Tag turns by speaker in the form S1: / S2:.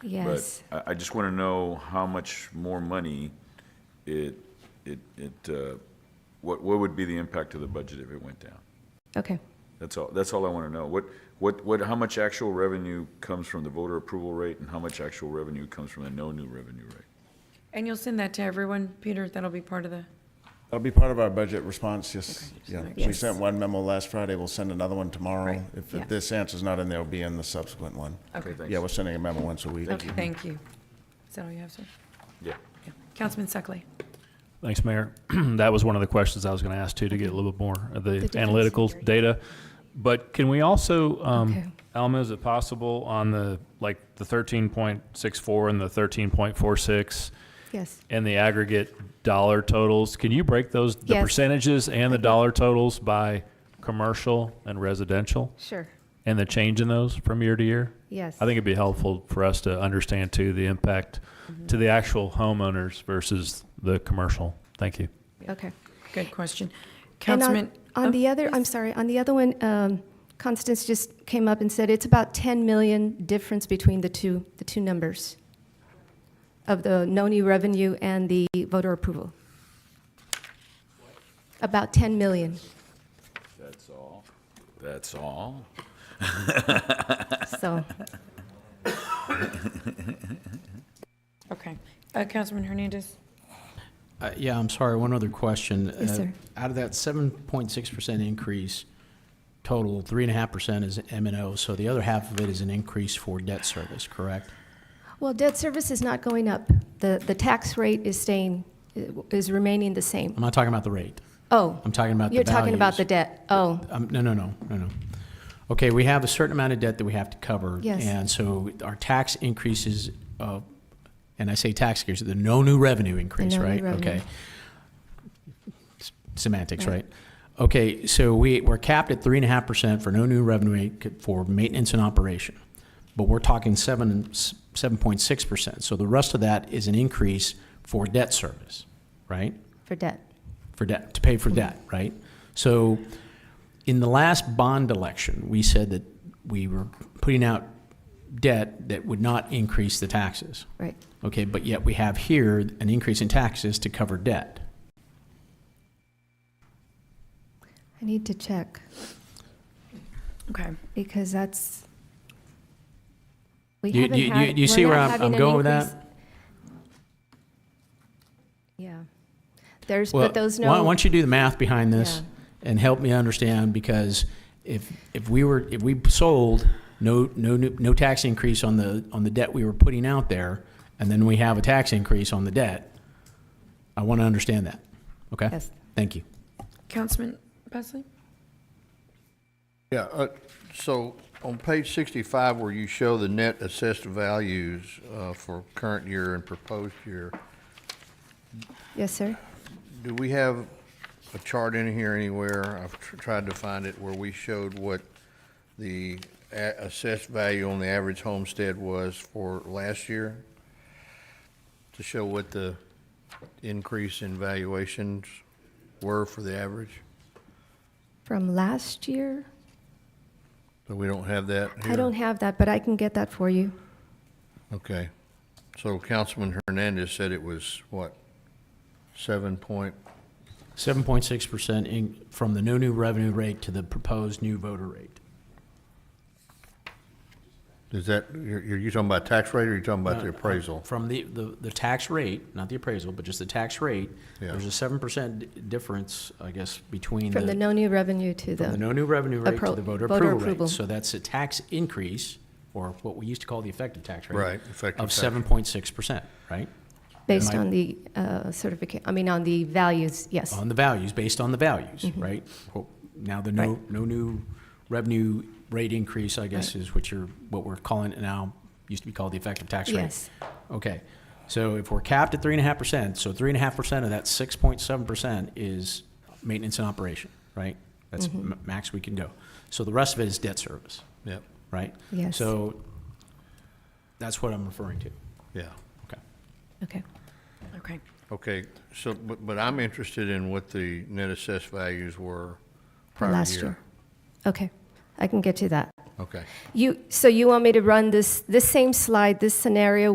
S1: Yes.
S2: But I, I just want to know how much more money it, it, it, uh, what, what would be the impact to the budget if it went down?
S1: Okay.
S2: That's all, that's all I want to know. What, what, what, how much actual revenue comes from the voter approval rate and how much actual revenue comes from the no new revenue rate?
S3: And you'll send that to everyone, Peter? That'll be part of the,
S4: That'll be part of our budget response, yes. Yeah, we
S1: Yes.
S4: sent one memo last Friday, we'll send another one tomorrow.
S3: Right,
S4: If
S1: yeah.
S4: if this answer's not in there, it'll be in the subsequent one.
S3: okay.
S2: thanks.
S4: Yeah, we're sending a memo once a week.
S3: Okay, thank you. Is that all you have, sir?
S2: Yeah.
S3: Yeah. Councilman Suckley?
S5: Thanks, Mayor. That was one of the questions I was going to ask too, to get a little bit more of the
S1: difference in
S5: analytical
S1: rate.
S5: data. But can we also,
S1: Okay.
S5: um, Alma, is it possible on the, like, the thirteen point six four and the thirteen point four six
S1: Yes.
S5: and the aggregate dollar totals? Can you break those, the
S1: Yes.
S5: percentages and the dollar totals by commercial and residential?
S1: Sure.
S5: And the change in those from year to year?
S1: Yes.
S5: I think it'd be helpful for us to understand too, the impact
S1: Mm-hmm.
S5: to the actual homeowners versus the commercial. Thank you.
S1: Okay.
S3: Good question.
S1: And on-
S3: Councilman? oh.
S1: On the other, I'm sorry, on the other one, um, Constance just came up and said it's about 10 million difference between the two, the two numbers of the no new revenue and the voter approval. About 10 million.
S2: That's all? That's all?
S1: So,
S3: Okay. Uh, Councilman Hernandez?
S6: Uh, Yeah, I'm sorry, one other question.
S1: Yes,
S6: Uh,
S1: sir.
S6: Out of that 7.6% increase total, 3.5% is M and O, so the other half of it is an increase for debt service, correct?
S1: well, debt service is not going up. The, the tax rate is staying, is remaining the same.
S6: I'm not talking about the rate.
S1: Oh.
S6: I'm talking about the
S1: You're talking about the
S6: values.
S1: debt. Oh,
S6: Um, No, no, no, no, no. Okay, we have a certain amount of debt that we have to cover.
S1: Yes.
S6: And so our tax increases, uh, and I say tax increases, the no new revenue increase,
S1: no new
S6: right?
S1: revenue.
S6: Okay. Semantics,
S1: Right.
S6: right? Okay, so we, we're capped at three and a half percent for no new revenue rate for maintenance and operation. But we're talking seven, seven point six percent. So the rest of that is an increase for debt service, right?
S1: for debt.
S6: for debt, to pay
S1: Mm-hmm.
S6: for debt, right? So in the last bond election, we said that we were putting out debt that would not increase the taxes.
S1: Right.
S6: Okay, but yet we have here an increase in taxes to cover debt.
S1: I need to check
S3: Okay.
S1: because that's. We
S6: You-
S1: haven't
S6: you- you-
S1: had-
S6: you
S1: we're
S6: see where
S1: not
S6: I'm-
S1: having
S6: I'm
S1: an
S6: going with that?
S1: increase- Yeah. There's,
S6: Well,
S1: but those
S6: why, why
S1: no,
S6: don't you do the math behind this and help me understand? Because if if we were if we sold no no new- no tax increase on the on the debt we were putting out there, and then we have a tax increase on the debt, I want to understand that. Okay.
S1: Yes.
S6: Thank you.
S3: Councilman Presley?
S7: Yeah, uh, so on page 65, where you show the net assessed values uh, for current year and proposed year,
S1: yes, sir.
S7: do we have a chart in here anywhere? I've tr- tried to find it where we showed what the a- assessed value on the average homestead was for last year to show what the increase in valuations were for the average?
S1: From last year?
S7: But we don't have that here?
S1: I don't have that, but I can get that for you.
S7: Okay. So Councilman Hernandez said it was, what, seven point?
S6: Seven point six percent in from the no new revenue rate to the proposed new voter rate.
S7: Is that, you're, you're you talking about tax rate or you're talking about the appraisal?
S6: From the, the, the tax rate, not the appraisal, but just the tax rate,
S7: Yeah.
S6: there's a seven percent difference, I guess, between
S1: From the no new revenue to
S6: From the
S1: the,
S6: no new revenue rate to
S1: Appro-
S6: the voter
S1: voter
S6: approval
S1: approval.
S6: rate. So that's a tax increase, or what we used to call the effective tax rate.
S7: Right, effective
S6: Of
S7: tax.
S6: seven point six percent, right?
S1: based
S6: Am I-
S1: on the certificate, I mean, on the values, yes.
S6: On the values, based on the values,
S1: Mm-hmm.
S6: right? Well, Now, the no, no new revenue rate increase, I guess, is what you're, what we're calling it now, used to be called the effective tax rate.
S1: Yes.
S6: Okay, so if we're capped at three and a half percent, so three and a half percent of that six point seven percent is maintenance and operation, right? That's
S1: Mm-hmm.
S6: m- max we can go. So the rest of it is debt service,
S7: Yep,
S6: right?
S1: Yes.
S6: So that's what I'm referring to.
S7: yeah.
S6: Okay.
S1: Okay.
S3: Okay.
S7: Okay, so, but, but I'm interested in what the net assessed values were
S1: From
S7: prior
S1: last
S7: year.
S1: Okay. I can get you that.
S7: Okay.
S1: You, so you want me to run this, this same slide, this scenario